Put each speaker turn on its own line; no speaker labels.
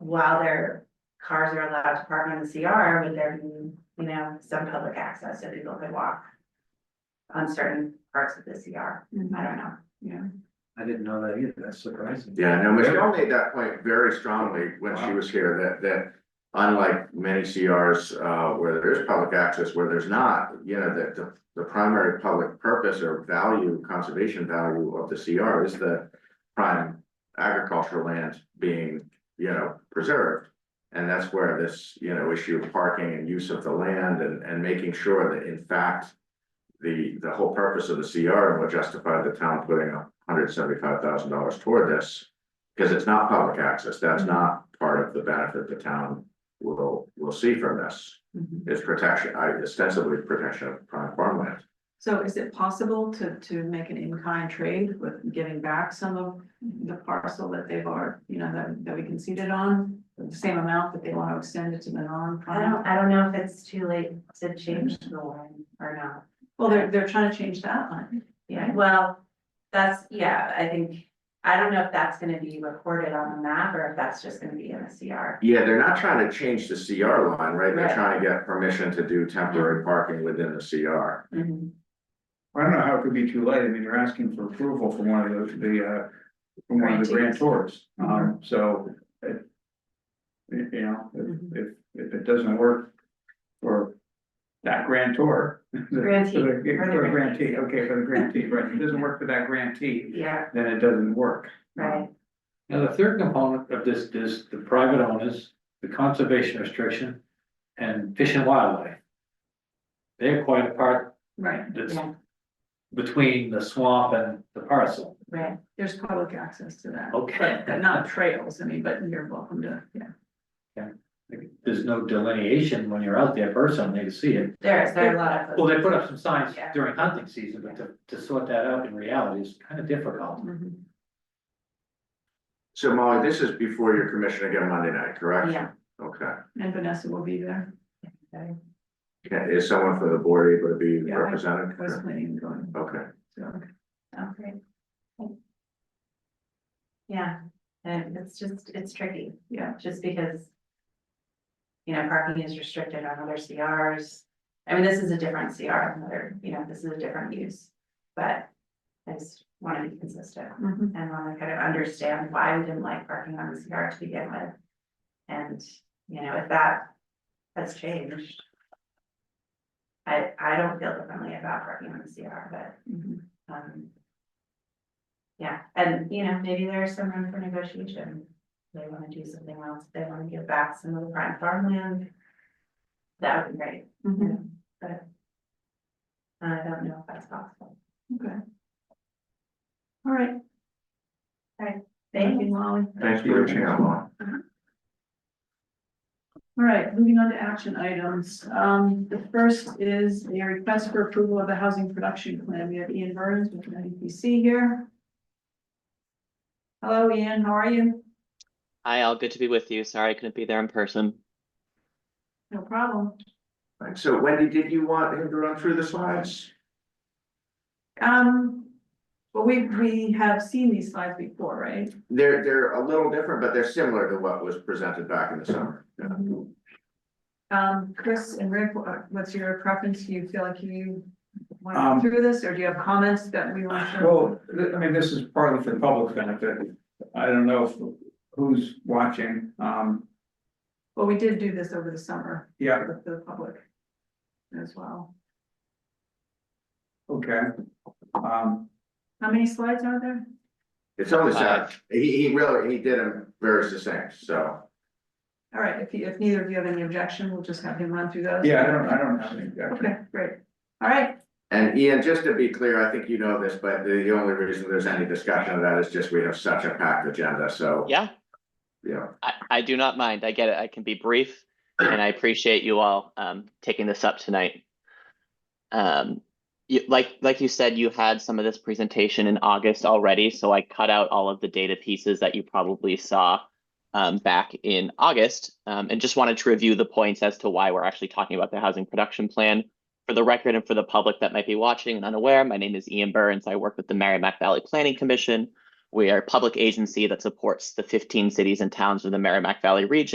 while their cars are allowed to park on the CR, would there be, you know, some public access that people could walk on certain parts of the CR?
Mm-hmm.
I don't know.
I didn't know that either, that's surprising.
Yeah, no, Michelle made that point very strongly when she was here, that, that unlike many CRs, uh, where there's public access, where there's not, you know, that the, the primary public purpose or value, conservation value of the CR is the prime agricultural land being, you know, preserved. And that's where this, you know, issue of parking and use of the land and, and making sure that in fact, the, the whole purpose of the CR and what justified the town putting up hundred seventy-five thousand dollars toward this. Because it's not public access, that's not part of the benefit the town will, will see from this,
Mm-hmm.
is protection, I ostensibly protection of prime farmland.
So is it possible to, to make an in-kind trade with giving back some of the parcel that they've already, you know, that, that we conceded on? The same amount that they want to extend it to the
I
non-prime?
don't, I don't know if it's too late to change the line or not.
Well, they're, they're trying to change that line.
Yeah, well, that's, yeah, I think, I don't know if that's gonna be recorded on the map or if that's just gonna be in the CR.
Yeah, they're not trying to change the CR line, right? They're
Right.
trying to get permission to do temporary parking within the CR.
I don't know how it could be too late, I mean, you're asking for approval from one of the, the, uh, from one of the grantors,
Uh-huh.
um, so, it. You you know,
Mm-hmm.
if, if, if it doesn't work for that grantor. the- for the-
Grantee,
For the
for the grantee.
grantee, okay, for the grantee, right, if it doesn't work for that grantee,
Yeah,
then it doesn't work.
right,
Now, the third component of this is the private owners, the conservation restriction, and fish and wildlife. They're quite apart,
Right,
that's
Yeah.
between the swamp and the parcel,
right.
there's public access to
Oh,
that.
Okay.
But- But not trails, I mean, but you're welcome to, yeah.
there's no delineation when you're out there personally to see it.
There is, there are a lot of.
Well, they put up some signs
Yeah.
during hunting season, but to, to sort that out in reality is kind of difficult.
Mhm.
So Molly, this is before your commission again Monday night, correct?
Yeah.
Okay,
And Vanessa will be there,
Okay.
Can- is someone from the board able to be
Yeah, I-
represented?
I was planning on going,
Okay,
so.
Okay. Yeah, and it's just, it's tricky.
Yeah.
Just because. You know, parking is restricted on other CRs. I mean, this is a different CR, another, you know, this is a different use. But I just want to be consistent
mhm.
and want to kind of understand why we didn't like parking on the CR to begin with. And, you know, if that has changed. I, I don't feel differently about parking on the CR, but
Mhm.
um. Yeah, and you know, maybe there's some room for negotiation. They wanna do something else, they wanna give back some of the prime farmland. That would be great, you
Mhm.
know, but. I don't know if that's possible.
Okay. All right,
Thank you.
Molly.
thanks for reaching out, Molly.
All right, moving on to action items. Um, the first is a request for approval of the housing production plan. We have Ian Burns with the NDPC here. Hello, Ian, how are you?
Hi, all. Good to be with you. Sorry I couldn't be there in person.
No problem.
Right, so Wendy, did you want him to run through the slides?
Um, well, we, we have seen these slides before, right?
They're, they're a little different, but they're similar to what was presented back in the summer.
Mm-hmm. Um, Chris and Rick, uh, what's your preference? Do you feel like you want to
Um,
go through this or do you have comments that we want to?
Well, th- I mean, this is partly for the public benefit, I don't know if, who's watching, um,
Well, we did do this over the summer
yeah,
for the public as well.
okay. Um,
How many slides are there?
It's only
Hi.
sad, he, he really, he did them very succinct, so.
All right, if you, if neither of you have any objection, we'll just have him run through those.
yeah, I don't, I don't have any objection.
Okay, great. All right,
And Ian, just to be clear, I think you know this, but the the only reason there's any discussion of that is just we have such a packed agenda, so,
Yeah,
you know.
I, I do not mind. I get it. I can be brief and I appreciate you all um, taking this up tonight. Um, you, like, like you said, you had some of this presentation in August already, so I cut out all of the data pieces that you probably saw um, back in August um, and just wanted to review the points as to why we're actually talking about the housing production plan. For the record and for the public that might be watching and unaware, my name is Ian Burns. I work with the Merrimack Valley Planning Commission. We are a public agency that supports the fifteen cities and towns of the Merrimack Valley region.